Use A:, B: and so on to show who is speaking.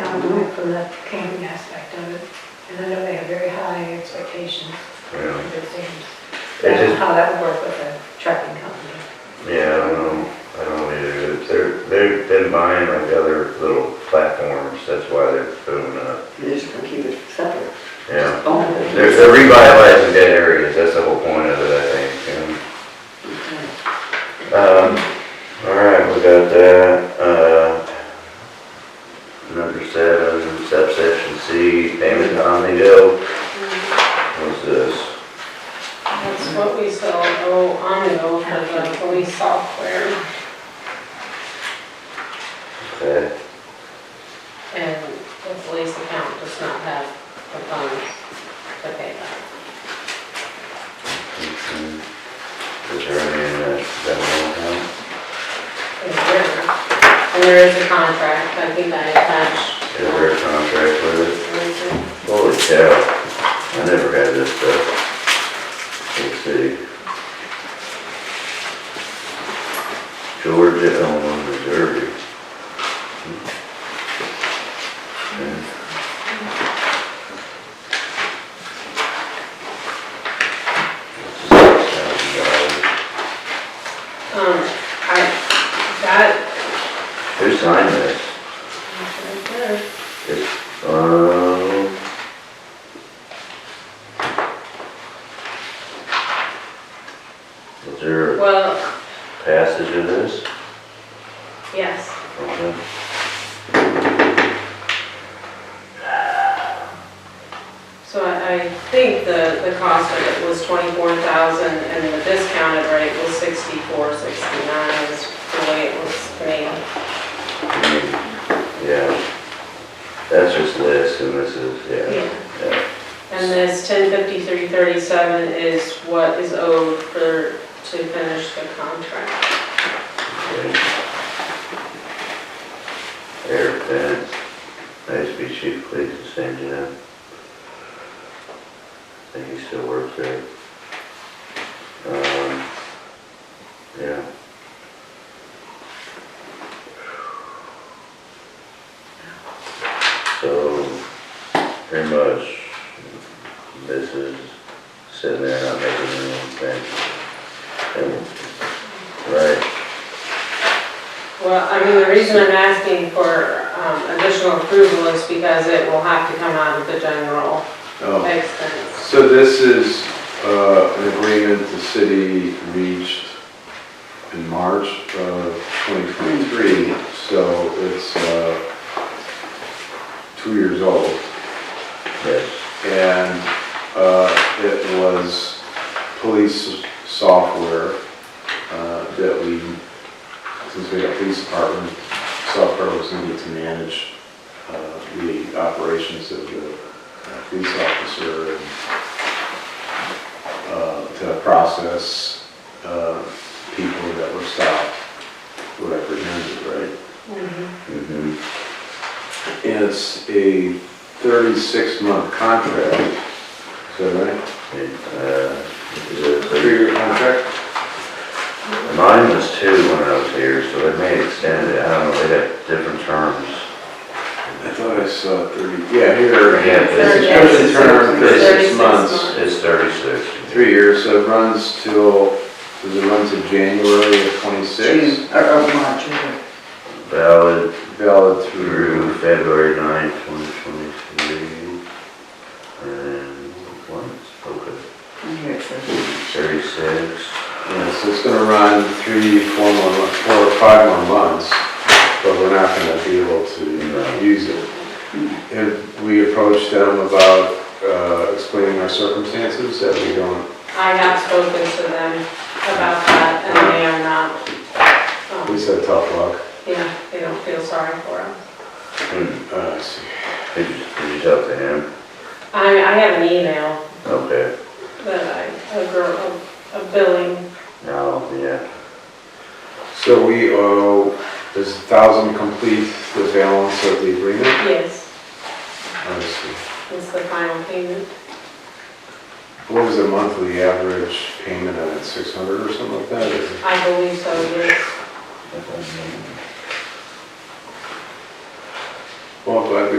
A: sound from the camping aspect of it. And I know they have very high expectations
B: Yeah,
A: of their teams. I
B: They
A: don't know
B: just-
A: uh, how that would work with a trucking company.
B: yeah, I don't, know. I don't know either. They're, they've been buying like other little platforms, that's why they're booming up.
C: They're just gonna keep it separate.
B: Yeah,
C: Own it.
B: they're, they're revitalizing dead areas, that's the whole point of it, I think, you know. Um, all right, we got that, uh, number seven, subsection C, payment to Omnidale, what's this?
D: That's what we sell, oh, Omnivore for the police software
B: Okay,
D: and the police account does not have the funds to pay that.
B: mhm. Is there any in that, that one account?
D: It's there. And there is a contract, I think I attached.
B: Is there a contract with it?
D: It's
B: Holy cow, I never had this stuff. Let's see. Georgia, Illinois, Missouri. Okay. $6,000.
D: Um, I, that,
B: Who signed this?
D: right there.
B: It's, um. Is there a
D: well,
B: passage of this?
D: yes,
B: Okay.
D: so I, I think the, the cost of it was twenty-four thousand and the discounted rate was sixty-four, sixty-nine is the way it was made.
B: Yeah. That's just list and this is, yeah. yeah.
D: And this ten fifty-three thirty-seven is what is owed for, to finish the contract.
B: okay. Air fence, ASB chief police is same to them. I think he still works there. Um, yeah. So, pretty much, this is sitting there not making any sense. And- Right.
D: Well, I mean, the reason I'm asking for um, additional approval is because it will have to come out of the general
E: Oh,
D: expense.
E: So this is uh, an agreement the city reached in March of 2023, so it's uh, two years old.
B: Yes.
E: And uh, it was police software uh, that we, since we had a police department, software was needed to manage uh, the operations of the uh, police officer and uh, to process uh, people that were stopped, were apprehended, right?
B: Mhm.
E: And it's a 36-month contract, is that right?
B: Uh, is it- uh,
E: Three-year contract?
B: Mine was two when I was here, so they may extend it, I don't know, they have different terms.
E: I thought I saw 30, yeah, here,
B: Yeah,
E: again,
B: it's-
E: subscription term, 36
D: 36
E: months,
B: It's thirty-six.
E: three years, so it runs till, does it run to January of 26?
C: June, or, or March, or
B: Valid
E: Valid
B: through
E: through,
B: February ninth, twenty twenty-three. And once, okay,
C: here it says.
B: thirty-six.
E: yeah, so it's gonna run three, four more, mon- four or five more months, but we're not gonna be able to use it. And we approached them about uh, explaining our circumstances, that we don't,
D: I have spoken to them about that and they are not,
E: we
D: um,
E: said tough luck.
D: yeah, they don't feel sorry for us.
B: Hmm,
E: Uh, I see.
B: Did you, did you talk to him?
D: I, I have an email
B: Okay,
D: that I, a girl, a billing,
B: now, yeah,
E: So we owe, does thousand complete the balance of the agreement?
D: yes,
E: Let me see.
D: is the final payment.
E: What was the monthly average payment on it, six hundred or something like that? Is it-
D: I believe so, yes.
E: Well, I'm glad we